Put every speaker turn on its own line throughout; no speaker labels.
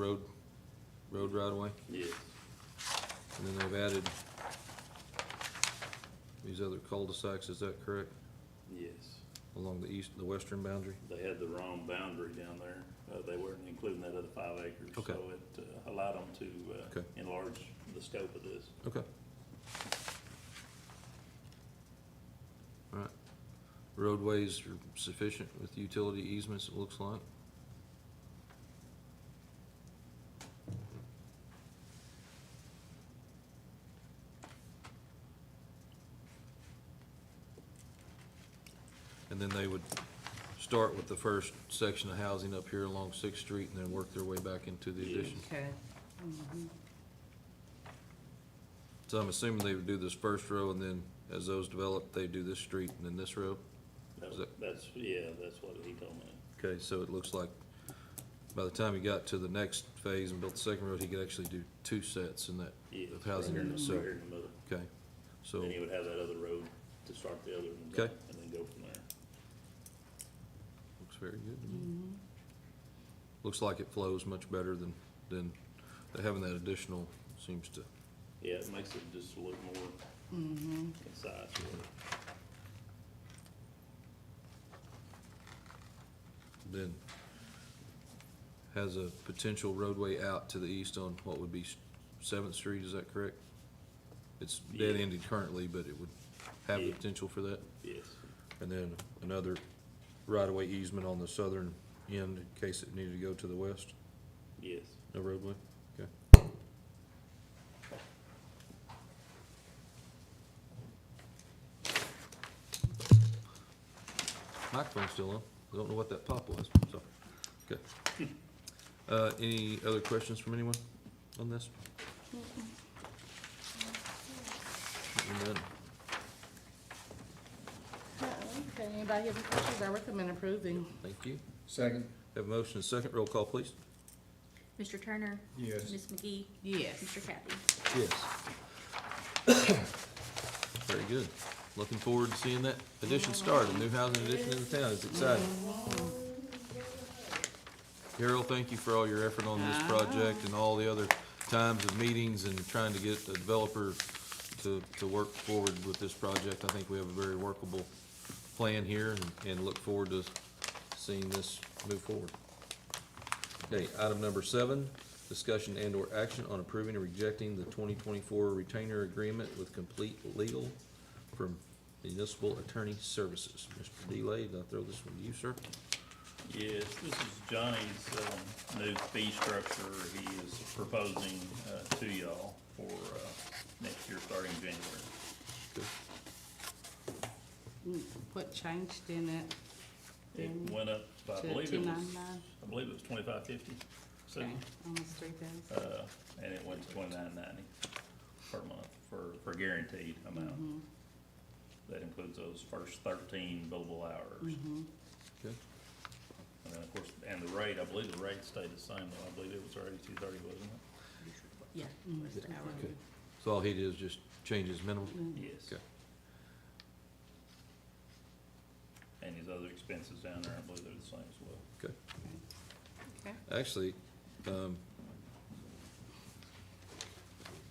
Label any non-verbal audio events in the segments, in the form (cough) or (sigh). road, road right away,
Yes,
and then they've added these other cul-de-sacs, is that correct,
yes.
along the east, the western boundary?
They had the wrong boundary down there. Uh, they weren't including that other five acres.
Okay.
So it uh, allowed them to, uh,
Okay.
enlarge the scope of this.
Okay. All right, roadways are sufficient with utility easements, it looks like. And then they would start with the first section of housing up here along Sixth Street and then work their way back into the
Yes.
addition?
Okay,
So I'm assuming they would do this first row, and then as those develop, they do this street and then this row?
That-
Is that-
That's, yeah, that's what he told me.
Okay, so it looks like by the time he got to the next phase and built the second road, he could actually do two sets in that,
Yes,
of
right
housing
here in the-
units, so,
Right here in the middle.
okay. So,
Then he would have that other road to start the other one.
Okay.
And then go from there.
looks very good to me. Looks like it flows much better than, than having that additional seems to,
Yeah, it makes it just look more concise. really.
then has a potential roadway out to the east on what would be Seventh Street, is that correct? It's dead-ended currently, but it would have the
Yeah.
potential for that?
Yes,
And then another right-of-way easement on the southern end in case it needed to go to the west,
yes.
no roadway? Okay. Microphone's still on. I don't know what that pop was, sorry. Okay. Uh, any other questions from anyone on this? And then,
okay, anybody have any questions? I recommend approving.
thank you.
Second.
Have a motion and a second. Roll call, please.
Mr. Turner?
Yes.
Ms. McGee?
Yes.
Mr. Kathy?
Yes. (coughs) Very good. Looking forward to seeing that addition start, a new housing addition in the town. It's exciting. Carol, thank you for all your effort on this project and all the other times of meetings and trying to get the developer to, to work forward with this project. I think we have a very workable plan here and, and look forward to seeing this move forward. Okay, item number seven, discussion and/or action on approving or rejecting the twenty twenty-four retainer agreement with complete legal from municipal attorney services. Mr. Delay, I'll throw this one to you, sir.
Yes, this is Johnny's um, new fee structure he is proposing uh, to y'all for uh, next year, starting January.
Mm-hmm. What changed in it?
It went up, by- I
To
believe it was,
299?
I believe it was twenty-five fifty, so,
Okay, almost three thousand.
uh, and it went to twenty-nine ninety per month for, for guaranteed amount.
Mm-hmm.
That includes those first thirteen billable hours.
Okay.
And then, of course, and the rate, I believe the rate stayed the same, though. I believe it was already two thirty, wasn't it?
Yeah. Mr. Howard?
Okay. So all he did is just change his minimum?
Mm-hmm.
Yes.
Okay.
And his other expenses down there, I believe they're the same as well.
Okay.
Okay,
Actually, um,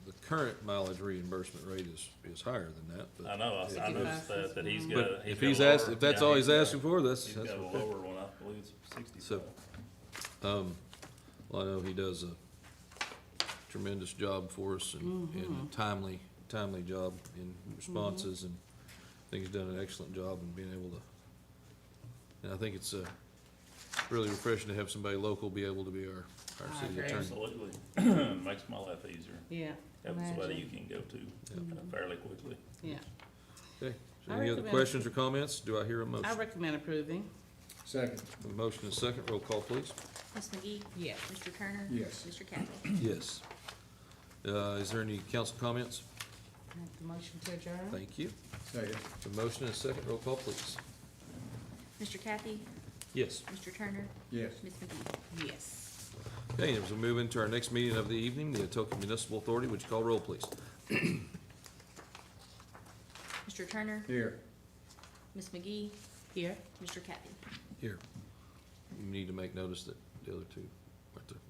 the current mileage reimbursement rate is, is higher than that,
I
but,
know, I- I noticed that, that he's got.
but
a-
if
got a
he's asked,
lower-
if that's
yeah,
all he's
got-
asking for, that's,
He's
that's
got a
what that-
lower one, I believe it's sixty-seven.
So- Um, well, I know he does a tremendous job for us and, and a timely, timely job in responses and I think he's done an excellent job in being able to. And I think it's, uh, really refreshing to have somebody local be able to be our, our
I
city
agree.
attorney.
Absolutely. (clears throat) Makes my life easier.
yeah.
Having somebody you
imagine.
can go to uh, fairly quickly.
Yeah,
Okay, so
I
any other
recommend-
questions or comments? Do I hear a
I
motion?
recommend approving.
Second.
A motion and a second, roll call please.
Ms. McGee?
Yes.
Mr. Turner?
Yes.
Mr. Kathy?
Yes. Uh, is there any council comments?
Make the motion to adjourn?
Thank you.
Second.
A motion and a second, roll call please.
Mr. Kathy?
Yes.
Mr. Turner?
Yes.
Ms. McGee?
Yes.
Okay, and as we move into our next meeting of the evening, the Atoka Municipal Authority, would you call roll, please?
Mr. Turner?
Here.
Ms. McGee?
Here?
Mr. Kathy?
Here. You need to make notice that the other two, right there.